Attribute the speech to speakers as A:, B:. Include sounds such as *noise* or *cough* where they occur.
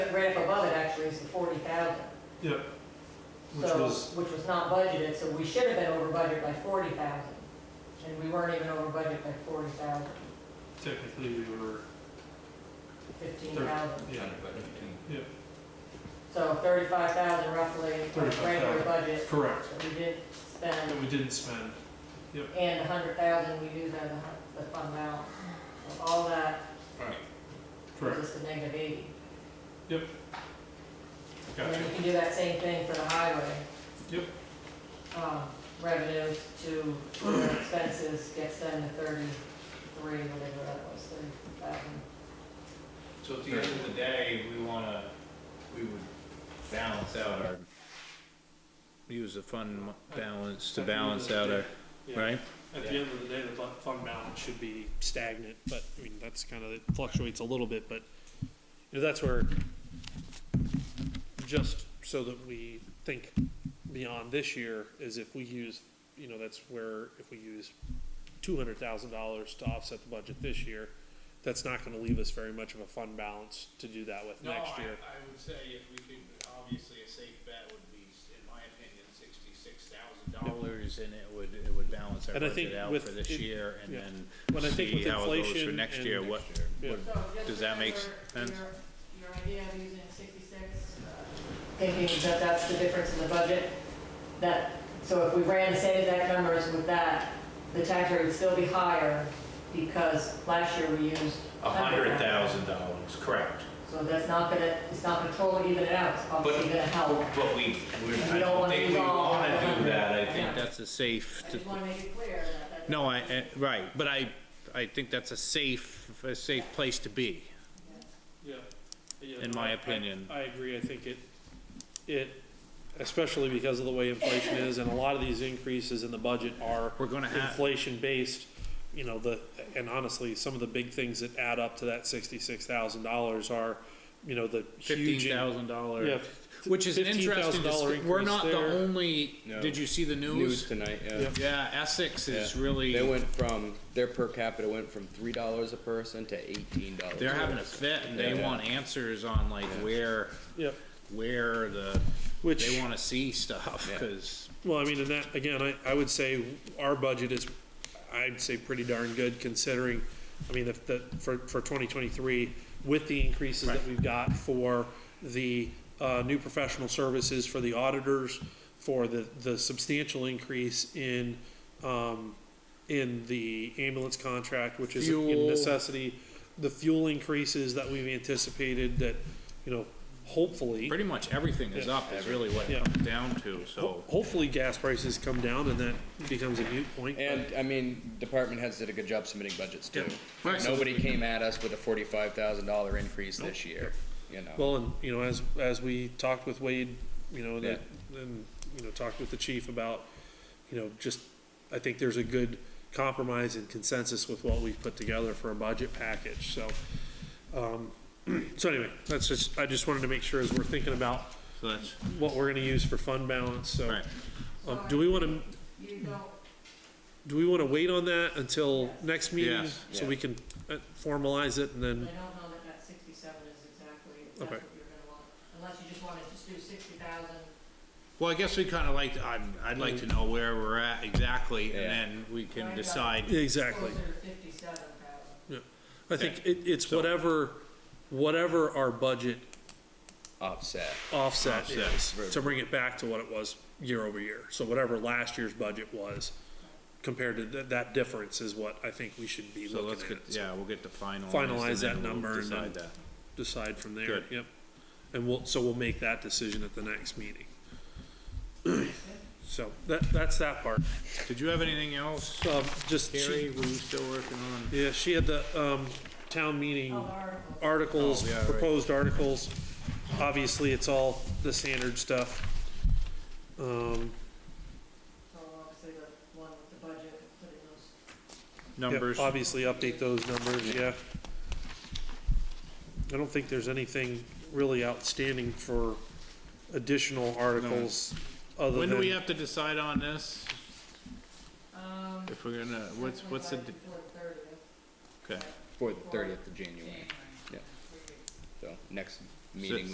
A: the ramp above it actually is the forty thousand.
B: Yeah, which
A: So,
B: was,
A: Which was not budgeted, so we should have been over budget by forty thousand, and we weren't even over budget by forty thousand,
B: technically, we were,
A: fifteen
B: Thirty.
A: thousand.
B: yeah,
A: So thirty-five thousand roughly, was regular
B: 35,000.
A: budget,
B: correct,
A: so we did spend,
B: that we didn't spend.
A: and a hundred thousand we used out of the hun- the fund balance. So all that gives
B: Correct,
A: us a negative eighty. And
B: gotcha,
A: then you can do that same thing for the highway.
B: Yep.
A: Um, revenues to their expenses gets them to thirty-three, whatever that was, thirty thousand.
C: So at the end of the day, we wanna, we would balance out our. Use the fund mo- balance to
B: At the end of
C: balance
B: the
C: out our,
B: day, yeah.
C: right?
B: At the end of the day, the bu- fund balance should be stagnant, but, I mean, that's kind of, it fluctuates a little bit, but, you know, that's where, just so that we think beyond this year, is if we use, you know, that's where, if we use two hundred thousand dollars to offset the budget this year, that's not gonna leave us very much of a fund balance to do that with
D: No,
B: next
D: I-
B: year.
D: I would say if we could, obviously a safe bet would be, in my opinion, sixty-six thousand dollars.
C: Dollars and it would, it would balance our
B: And I think
C: budget out
B: with
C: for this
B: it-
C: year and
B: yeah. When I
C: then
B: think
C: see
B: with
C: how it goes for
B: inflation
C: next year,
B: and-
C: what,
B: Yeah.
C: what, Does that make sense?
A: Your idea of using sixty-six? uh, Thinking that that's the difference in the budget, that, so if we ran the same exact numbers with that, the tax rate would still be higher because last year we used.
D: A hundred thousand dollars, correct.
A: So that's not gonna, it's not gonna totally even it out, it's obviously
D: But-
A: gonna help.
D: But we, we,
A: We
D: I
A: don't
D: don't
A: wanna
D: think
A: lose
D: we
A: all
D: wanna
A: of
D: do
A: it.
D: that, I
C: I
D: think
C: think that's a safe.
A: I
C: to-
A: just wanna make it clear that that.
C: No, I, I- right, but I, I think that's a safe, a safe place to be.
B: Yeah. Yeah,
C: In
B: no,
C: my
B: I- I-
C: opinion.
B: I agree, I think it, it, especially because of the way inflation is, and a lot of these increases in the budget are
C: We're gonna have.
B: inflation-based, you know, the, and honestly, some of the big things that add up to that sixty-six thousand dollars are, you know, the huge.
C: fifteen thousand
B: Yeah.
C: dollar, which is an interesting.
B: $15,000
C: dis- We're not the
B: increase there.
C: only.
E: No.
C: Did you see the
E: news
C: news?
E: tonight, yeah.
B: Yeah.
C: Yeah, Essex is
E: Yeah.
C: really.
E: They
C: They
E: went from, their per capita went from three dollars a person to eighteen dollars.
C: are having a fit, and they
E: Yeah.
C: want answers on like where,
B: Yeah,
C: where the.
B: Which-
C: they want to see stuff
E: Yeah.
C: because
B: well, I mean, and that, again, I, I would say our budget is, I'd say pretty darn good considering, I mean, if the, for, for twenty twenty-three, with the increases that we've got for the, uh, new professional services for the auditors, for the, the substantial increase in, um, in the ambulance contract, which is a
C: Fuel.
B: necessity, the fuel increases that we've anticipated that, you know, hopefully.
C: pretty much everything is
B: Yeah.
C: up. Is really what
B: Yeah.
C: it comes down to. So
B: Ho- Hopefully, gas prices come down and that becomes a mute point. but-
E: And, I mean, department heads did a good job submitting budgets too.
C: Right.
E: Nobody came at us with a forty-five thousand dollar increase this year, you know.
B: Well, and, you know, as, as we talked with Wade, you know, that, and, you know, talked with the chief about, you know, just, I think there's a good compromise and consensus with what we've put together for a budget package, so. Um, *clears throat* so anyway, that's just, I just wanted to make sure as we're thinking about
C: So that's
B: what we're gonna use for fund balance, so.
C: right.
B: Um, do we wanna,
A: You don't,
B: do we wanna wait on that until next meeting?
C: Yes.
B: So we can uh, formalize it and
A: I
B: then,
A: don't know that that sixty-seven is exactly, if that's
B: Okay.
A: what you're gonna want, unless you just wanna just do sixty thousand.
C: Well, I guess we kind of like. I'm, I'd like to know where we're at exactly,
E: Yeah.
C: and then we can decide.
B: exactly.
A: Closer to fifty-seven thousand.
B: I think it, it's whatever, whatever our budget
E: Offset.
B: offset
C: Offset.
B: is, to bring it back to what it was year over year. So whatever last year's budget was compared to that, that difference is what I think we should be
C: So let's
B: looking
C: get,
B: at. So
C: yeah, we'll get the final.
B: Finalize that number and then-
C: Decide that.
B: Decide from there,
C: Good.
B: yep. And we'll, so we'll make that decision at the next meeting. So that, that's that part.
C: Did you have anything else?
B: Um, just,
C: Carrie,
B: she,
C: were you still working on?
B: yeah, she had the, um, town meeting
A: Oh, articles.
B: articles,
C: Oh, yeah, right.
B: proposed articles. Obviously, it's all the standard stuff. Um,
A: So obviously the one with the budget, putting those,
B: Yep,
C: Numbers?
B: Obviously, update those numbers, yeah. I don't think there's anything really outstanding for additional articles other
C: When do we
B: than,
C: have to decide on this?
A: um.
C: If we're gonna, what's, what's the, d-
A: Before the thirtieth.
C: okay.
E: For the thirtieth of January,
A: January.
E: Yeah.
A: Three weeks.
E: so next meeting we